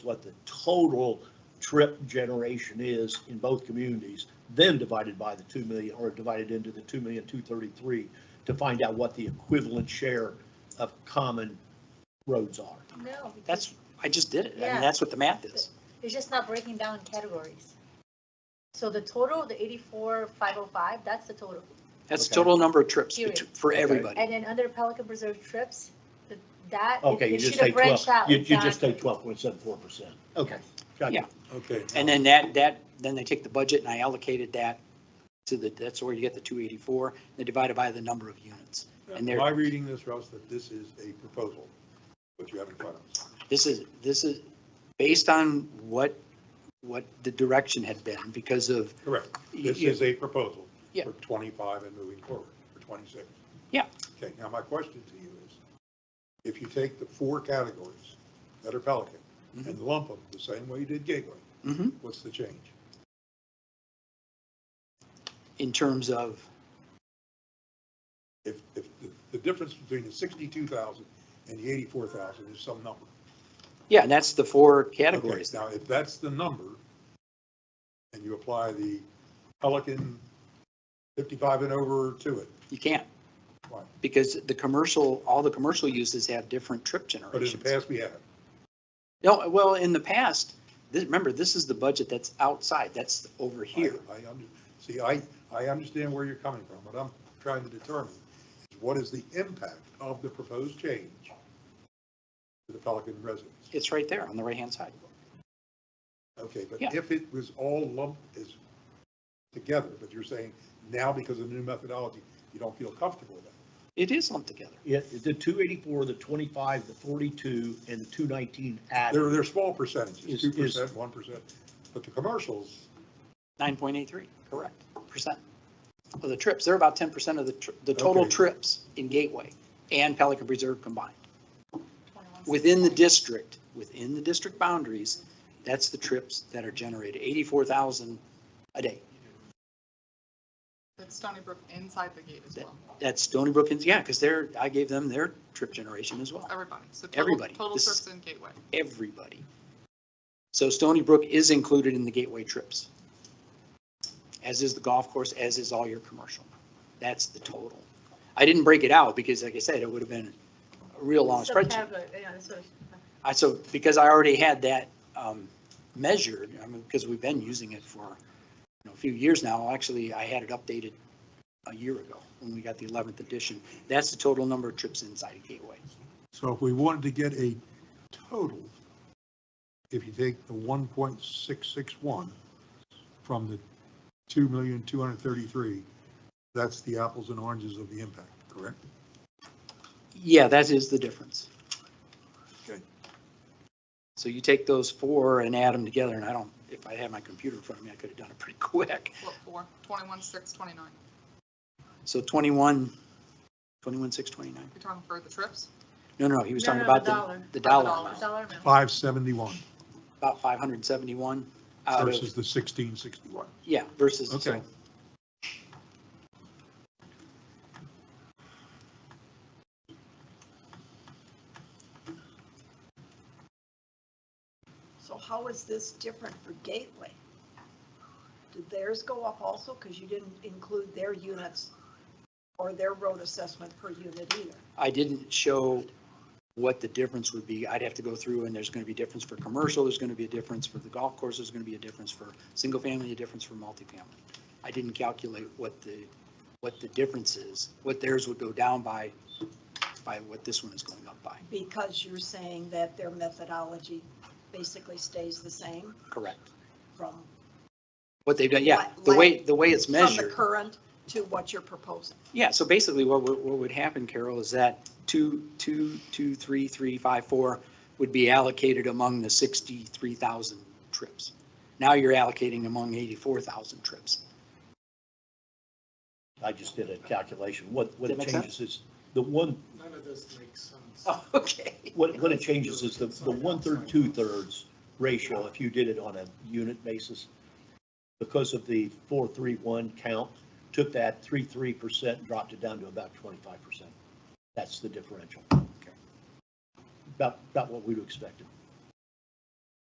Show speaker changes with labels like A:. A: what the total trip generation is in both communities, then divided by the 2 million, or divided into the 2 million, 233, to find out what the equivalent share of common roads are.
B: No, because
C: That's, I just did it. I
B: Yeah.
C: mean, that's what the math is.
B: it's just not breaking down in categories. So the total, the eighty-four, five oh five, that's the total.
C: That's the
A: Okay.
C: total number of trips
B: Period.
C: bet- for
A: Okay.
C: everybody.
B: And then under Pelican Preserve trips, th- that, it-
A: Okay, you
B: it should
A: just
B: have
A: take 12,
B: branched out.
A: you you just
B: exactly.
A: take 12.74%. Okay, got
C: Yeah.
A: it.
D: Okay.
C: And then that, that, then they take the budget and I allocated that to the, that's where you get the 284. They divide it by the number of units. and they're-
D: Am I reading this, Russ, that this is a proposal, what you have in front of us?
C: This is, this is based on what, what the direction had been because of,
D: Correct. This
C: Yeah.
D: is a proposal
C: Yeah.
D: for 25 and moving forward, for 26.
C: Yeah.
D: Okay, now my question to you is, if you take the four categories that are Pelican
C: Mm-hmm.
D: and lump them the same way you did Gateway,
C: Mhm.
D: what's the change?
C: in terms of,
D: If, if the- the difference between the 62,000 and the 84,000 is some number.
C: yeah, and that's the four
D: Okay,
C: categories. there.
D: Now, if that's the number, and you apply the Pelican 55 and over to it,
C: You can't.
D: Why?
C: Because the commercial, all the commercial uses have different trip
D: but in the
C: generations.
D: past, we haven't.
C: No, well, in the past, this, remember, this is the budget that's outside, that's over here.
D: I, I under- see, I, I understand where you're coming from. What I'm trying to determine is what is the impact of the proposed change to the Pelican residents?
C: It's right there on the right-hand side.
D: Okay, but
C: Yeah.
D: if it was all lumped as together, but you're saying now because of the new methodology, you don't feel comfortable with that.
C: It is lumped together.
A: It- The 284, the 25, the 42, and the 219 add.
D: They're, they're small percentages,
A: Is-
D: two
A: is-
D: percent, one percent, but the commercials,
C: Nine point eight three, correct, percent. Of the trips, they're about ten percent of the, tr- the total
D: Okay.
C: trips in Gateway and Pelican Preserve combined.
B: 21.
C: Within the district, within the district boundaries, that's the trips that are generated, eighty-four thousand a day.
E: That's Stony Brook inside the gate as
C: That-
E: well,
C: That's Stony Brook, and- yeah, because they're, I gave them their trip generation as well.
E: everybody. So total-
C: Everybody.
E: Total
C: This-
E: trips in Gateway.
C: everybody. So Stony Brook is included in the gateway trips, as is the golf course, as is all your commercial. That's the total. I didn't break it out because like I said, it would have been a real long spreadsheet.
B: Subcategory, yeah, that's what it-
C: I, so because I already had that um, measured, I mean, because we've been using it for you know, a few years now. Actually, I had it updated a year ago when we got the 11th edition. That's the total number of trips inside a gateway.
D: so if we wanted to get a total, if you take the one point six six one from the two million, two hundred thirty-three, that's the apples and oranges of the impact, correct?
C: Yeah, that is the difference.
D: Okay.
C: So you take those four and add them together, and I don't, if I had my computer in front of me, I could have done it pretty quick.
E: What, four? Twenty-one, six, twenty-nine.
C: So 21, 21, 6, 29.
E: You're talking for the trips?
C: No, no, he was
B: No,
C: talking
B: no, the
C: about the,
B: dollar.
C: the dollar
E: dollar.
C: amount,
B: Dollar amount.
D: Five seventy-one
C: about 571 out
D: versus
C: of,
D: the sixteen sixty-one.
C: yeah, versus, so
D: Okay.
F: So how is this different for Gateway? Did theirs go up also, because you didn't include their units or their road assessment per unit either?
C: I didn't show what the difference would be. I'd have to go through and there's going to be difference for commercial, there's going to be a difference for the golf course, there's going to be a difference for single family, a difference for multifamily. I didn't calculate what the, what the difference is, what theirs would go down by, by what this one is going up by.
F: Because you're saying that their methodology basically stays the same
C: Correct.
F: from,
C: What they've done, yeah, the way, the way it's
F: from the
C: measured.
F: current to what you're proposing.
C: Yeah, so basically what would, what would happen, Carol, is that two, two, two, three, three, five, four would be allocated among the sixty-three thousand trips. Now you're allocating among eighty-four thousand trips.
A: I just did a calculation. What, what
C: Does that
A: it
C: make
A: changes is, the one,
G: None of this makes sense.
C: Oh, okay.
A: what, what it changes is the, the one-third, two-thirds ratio, if you did it on a unit basis, because of the four-three-one count, took that three-three percent, dropped it down to about twenty-five percent. That's the differential. About, about what we'd expected.